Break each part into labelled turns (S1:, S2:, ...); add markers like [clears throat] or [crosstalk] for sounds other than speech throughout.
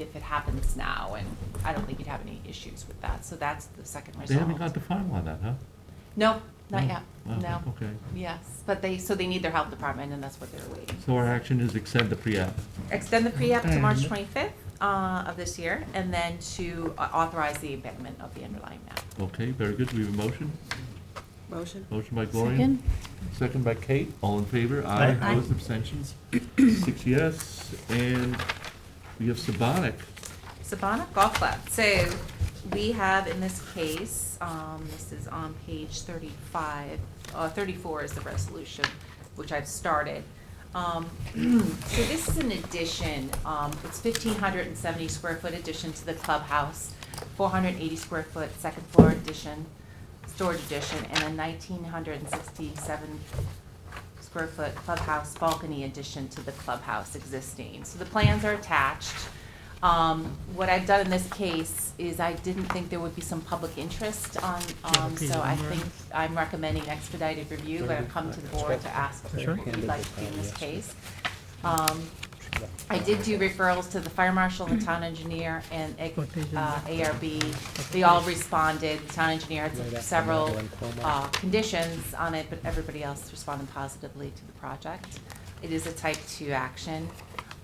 S1: if it happens now, and I don't think you'd have any issues with that. So that's the second
S2: They haven't got
S1: result.
S2: the final on that, huh?
S1: No, not
S2: No?
S1: yet,
S2: Oh,
S1: no.
S2: Okay,
S1: Yes, but they, so they need their health department, and that's what they're waiting.
S2: so our action is extend the pre-app.
S1: Extend the pre-app to
S2: Okay.
S1: March 25th uh, of this year, and then to uh, authorize the amendment of the underlying map.
S2: Okay, very good, we have a motion.
S3: Motion.
S2: Motion by Gloria. Second by Kate. All in favor? Aye.
S4: Aye.
S2: Opposed, abstentions? [clears throat] Six yes. And we have Sabonic.
S1: Sabana Golf Club. So we have in this case, um, this is on page thirty-five, uh, thirty-four is the resolution, which I've started. Um, [clears throat] so this is an addition, um, it's fifteen hundred and seventy square foot addition to the clubhouse, four hundred and eighty square foot second floor addition, storage addition, and a nineteen hundred and sixty-seven square foot clubhouse balcony addition to the clubhouse existing. So the plans are attached. Um, What I've done in this case is I didn't think there would be some public interest on, um,
S4: okay,
S1: so I
S4: number.
S1: think I'm recommending expedited review, but I've come to the board to ask what
S4: Sure.
S1: you'd like to do in this case. Um, I did do referrals to the fire marshal, the town engineer, and uh,
S4: What page is that?
S1: ARB. They all responded, the town engineer had several uh, conditions on it, but everybody else responded positively to the project. It is a type-two action.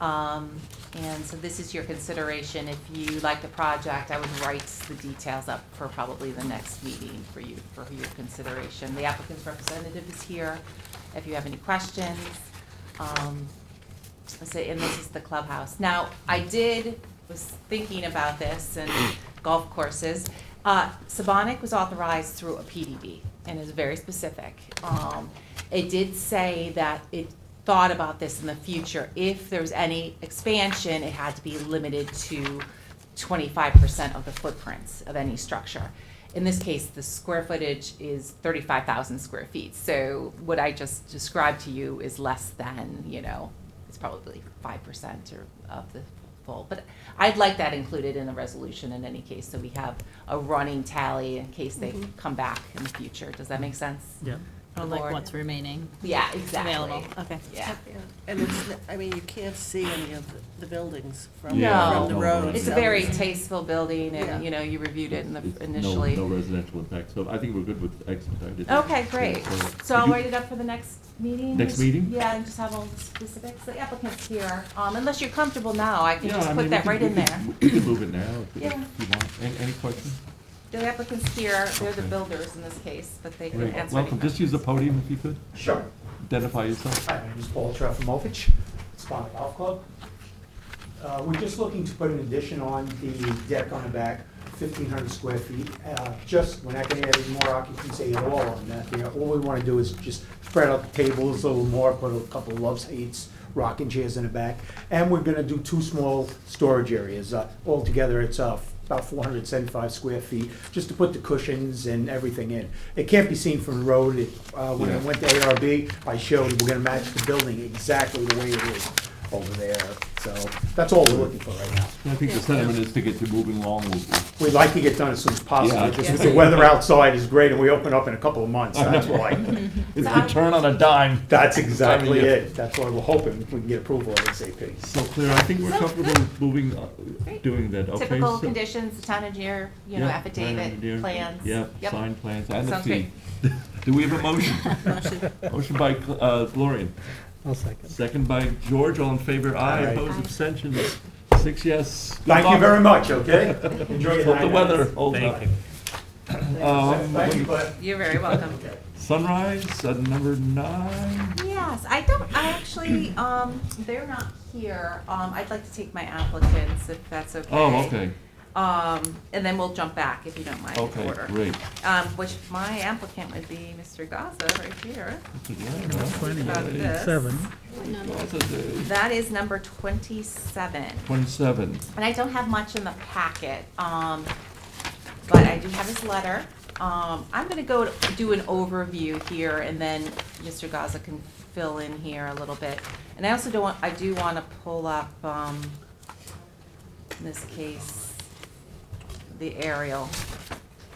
S1: Um, And so this is your consideration. If you like the project, I would write the details up for probably the next meeting for you, for your consideration. The applicant's representative is here if you have any questions. Um, so, and this is the clubhouse. Now, I did, was thinking about this and [coughs] golf courses. Uh, Sabonic was authorized through a PDD and is very specific. Um, it did say that it thought about this in the future. If there was any expansion, it had to be limited to twenty-five percent of the footprints of any structure. In this case, the square footage is thirty-five thousand square feet. So what I just described to you is less than, you know, it's probably five percent or of the full. But I'd like that included in the resolution in any case, so we have a running tally in case they come back in the future. Does that make sense?
S4: Yeah.
S1: Oh,
S5: Or like
S1: Lord.
S5: what's remaining.
S1: Yeah, exactly.
S5: Available, okay.
S1: Yeah.
S3: And it's, n- I mean, you can't see any of the- the buildings from,
S1: Yeah.
S3: from the
S1: No.
S3: road.
S1: It's a
S3: so
S1: very tasteful building and,
S3: Yeah.
S1: you know, you reviewed it in the
S2: It's no-
S1: initially.
S2: No residential impact, so I think we're good with expedited.
S1: Okay, great.
S2: Yeah,
S1: So I'll
S2: you-
S1: write it up for the next meeting?
S2: Next meeting?
S1: Yeah, and just have all the specifics. The applicant's here. Um, unless you're comfortable now, I can
S2: Yeah,
S1: just
S2: I
S1: put
S2: mean,
S1: that
S2: we
S1: right
S2: can-
S1: in there.
S2: We can we can move it now if- if
S1: Yeah.
S2: you want. Any, any questions?
S1: The applicant's here. They're the
S2: Okay.
S1: builders in this case, but they can
S2: Great.
S1: answer any
S2: Welcome, just use the podium if you could.
S6: Sure.
S2: Identify yourself.
S6: Hi, my name is Paul Trefimovic, Sponic Golf Club. Uh, We're just looking to put an addition on the deck on the back, 1,500 square feet. Uh, Just, we're not going to add any more occupancy at all on that there. All we want to do is just spread out the tables a little more, put a couple of love seats, rocking chairs in the back. And we're going to do two small storage areas. Uh, Altogether, it's uh, about 475 square feet, just to put the cushions and everything in. It can't be seen from the road. It, uh, When
S2: Yeah.
S6: it went to ARB, I showed we're going to match the building exactly the way it is over there. So that's all we're looking for right now.
S2: I think the sentiment is to get you moving along. We'll- we'll-
S6: We'd like to get done as soon as
S2: Yeah.
S6: possible, just 'cause the weather outside is great and we open up in a couple of months, that's why.
S2: It's the turn on a dime.
S6: That's exactly
S2: I mean, yeah.
S6: it, that's why we're hoping we can get approval of ASAP.
S2: So Claire, I think we're
S1: So-
S2: comfortable moving, uh,
S1: Great.
S2: doing that, okay?
S1: Typical
S2: so-
S1: conditions, the town engineer, you know,
S2: Yeah, plan
S1: affidavit,
S2: engineer.
S1: plans.
S2: Yep, signed plans and the
S1: Sounds
S2: fee. [laughs] Do we have a motion?
S1: [laughs]
S3: Motion.
S2: Motion by uh, Gloria,
S4: I'll second.
S2: second by George, all in favor, aye,
S6: Aye.
S2: opposed,
S1: Aye.
S2: abstentions, six yes. Good
S6: Thank you
S2: luck.
S6: very much, okay? Enjoy your
S2: Hope
S6: night.
S2: the weather holds up.
S4: Thank you.
S2: [clears throat] Um,
S6: Thank you, bud.
S1: You're very welcome.
S2: Sunrise, uh, number nine.
S1: Yes, I don't, I actually, [clears throat] um, they're not here. Um, I'd like to take my applicants if that's okay.
S2: Oh, okay,
S1: Um, and then we'll jump back if you don't mind in
S2: okay,
S1: order.
S2: great.
S1: Um, which my applicant would be Mr. Gaza right here.
S4: Plenty
S1: About
S4: of
S1: this.
S4: Seven.
S1: That is number twenty-seven.
S2: Twenty-seven,
S1: And I don't have much in the packet, um, but I do have his letter. Um, I'm gonna go to- do an overview here and then Mr. Gaza can fill in here a little bit. And I also don't want, I do wanna pull up, um, in this case, the aerial,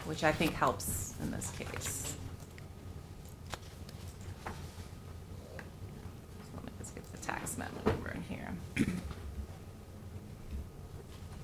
S1: which I think helps in this case. Let me just get the tax map over in here.